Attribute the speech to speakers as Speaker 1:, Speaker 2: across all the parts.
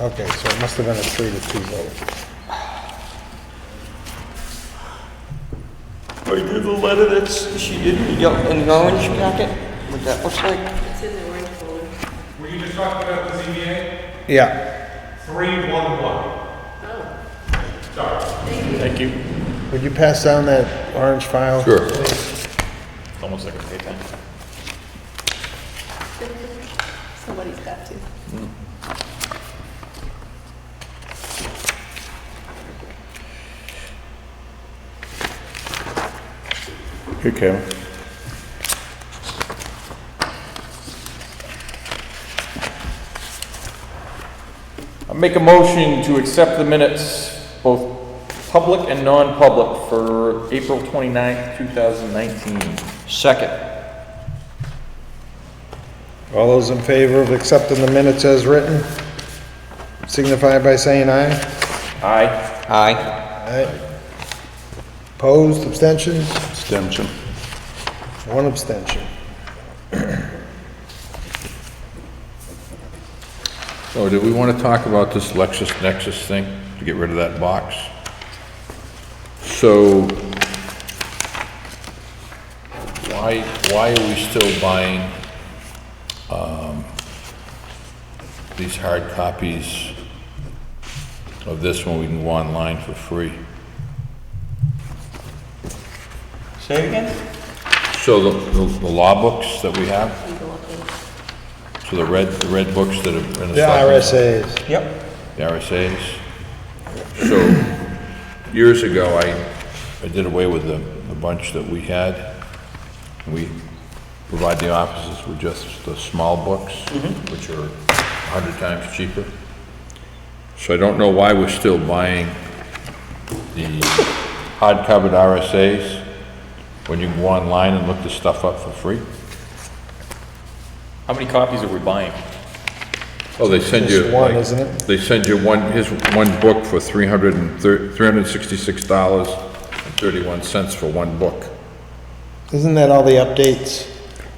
Speaker 1: Okay, so it must have been a three to two vote.
Speaker 2: Right there, the letter that's, she did, yeah, in the orange packet, what that looks like.
Speaker 3: It's in the orange folder.
Speaker 4: Were you just talking about the ZBA?
Speaker 1: Yeah,
Speaker 4: Three, one, one. Sorry.
Speaker 5: Thank you.
Speaker 1: would you pass down that orange file?
Speaker 2: Sure.
Speaker 5: Almost like a pay time.
Speaker 3: Somebody's got to.
Speaker 6: Here, Kevin.
Speaker 5: I make a motion to accept the minutes, both public and non-public, for April 29th, 2019.
Speaker 2: Second.
Speaker 1: All those in favor of accepting the minutes as written, signify by saying aye.
Speaker 5: Aye.
Speaker 2: Aye.
Speaker 1: Aye. Opposed, abstentions?
Speaker 6: Stimson.
Speaker 1: One abstention.
Speaker 6: Oh, do we want to talk about this Lexus Nexus thing, to get rid of that box? So, why, why are we still buying, um, these hard copies of this when we can go online for free?
Speaker 2: Say it again?
Speaker 6: So the, the the law books that we have? So the red, the red books that are in the...
Speaker 1: The RSA's.
Speaker 2: Yep.
Speaker 6: the RSA's. So, years ago, I, I did away with the, the bunch that we had. We provide the offices with just the small books, which are a hundred times cheaper. So I don't know why we're still buying the hardcovered RSA's when you can go online and look the stuff up for free.
Speaker 5: How many copies are we buying?
Speaker 6: Oh, they send you.
Speaker 1: Just one,
Speaker 6: like,
Speaker 1: isn't it?
Speaker 6: They send you one, his one book for three hundred and thir- three hundred and sixty-six dollars and thirty-one cents for one book.
Speaker 1: Isn't that all the updates?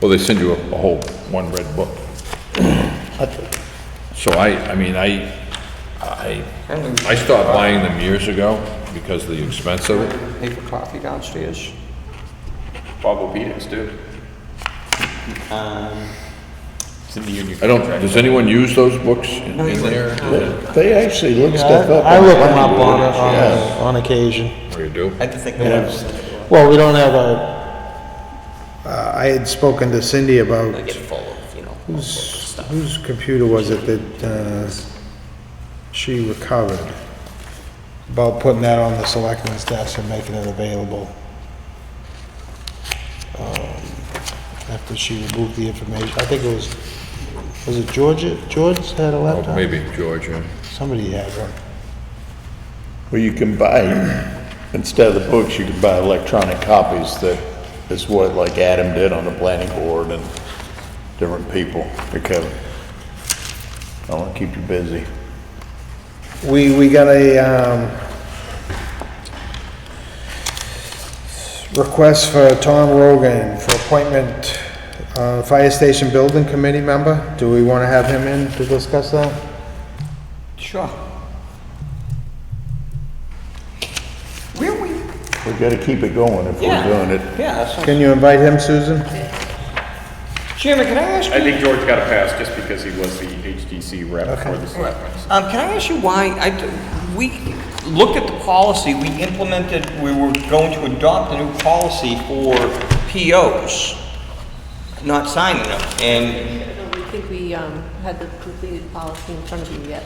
Speaker 6: Well, they send you a, a whole, one red book. So I, I mean, I, I, I stopped buying them years ago because of the expense of it.
Speaker 2: Paper copy downstairs?
Speaker 5: Bob Obedence, dude. It's in the union
Speaker 6: I don't,
Speaker 5: contract.
Speaker 6: does anyone use those books in in there?
Speaker 1: They actually look stuff up. I look them up on, on, on occasion.
Speaker 6: Or you do?
Speaker 2: I just think the ones
Speaker 1: Well, we don't have a. Uh, I had spoken to Cindy about,
Speaker 2: that get full of, you know.
Speaker 1: whose, whose computer was it that, uh, she recovered? About putting that on the selectmen's desk and making it available. Um, After she removed the information, I think it was, was it Georgia, George had a
Speaker 6: Oh,
Speaker 1: laptop?
Speaker 6: maybe Georgia.
Speaker 1: Somebody had one.
Speaker 7: Well, you can buy, instead of the books, you can buy electronic copies that is what like Adam did on the planning board and different people. Because I want to keep you busy.
Speaker 1: We, we got a, um, request for Tom Rogan for appointment, uh, Fire Station Building Committee member. Do we wanna have him in to discuss that?
Speaker 2: Sure. Where we?
Speaker 7: We've got to keep it going if we're
Speaker 2: Yeah.
Speaker 7: doing it.
Speaker 2: Yeah, that's,
Speaker 1: Can you invite him, Susan?
Speaker 2: Chairman, can I ask you?
Speaker 5: I think George got a pass just because he was the HDC rep for the selectmen.
Speaker 2: Um, can I ask you why, I, d- we looked at the policy, we implemented, we were going to adopt a new policy for POs, not signing them, and,
Speaker 3: I don't think we um, had the completed policy in front of you yet.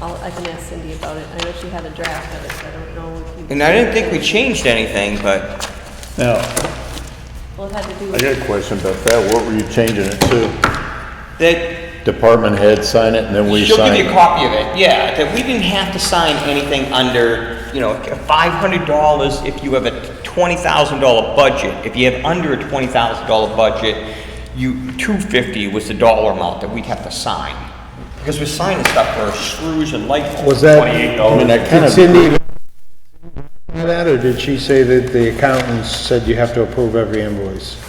Speaker 3: I'll, I can ask Cindy about it. I know she had a draft of it, so I don't know if you.
Speaker 2: and I didn't think we changed anything, but
Speaker 7: Now,
Speaker 3: Well, it had to do
Speaker 7: I
Speaker 3: with,
Speaker 7: got a question about that. What were you changing it to?
Speaker 2: that,
Speaker 7: Department head sign it and then we
Speaker 2: she'll
Speaker 7: sign
Speaker 2: give you a
Speaker 7: it?
Speaker 2: copy of it, yeah, that we didn't have to sign anything under, you know, five hundred dollars if you have a twenty thousand dollar budget, if you have under a twenty thousand dollar budget, you, two fifty was the dollar amount that we'd have to sign, because we're signing stuff for screws and light bulbs.
Speaker 1: Was that-
Speaker 7: I mean, I kind
Speaker 1: Did
Speaker 7: of.
Speaker 1: Cindy do that, or did she say that the accountants said you have to approve every invoice?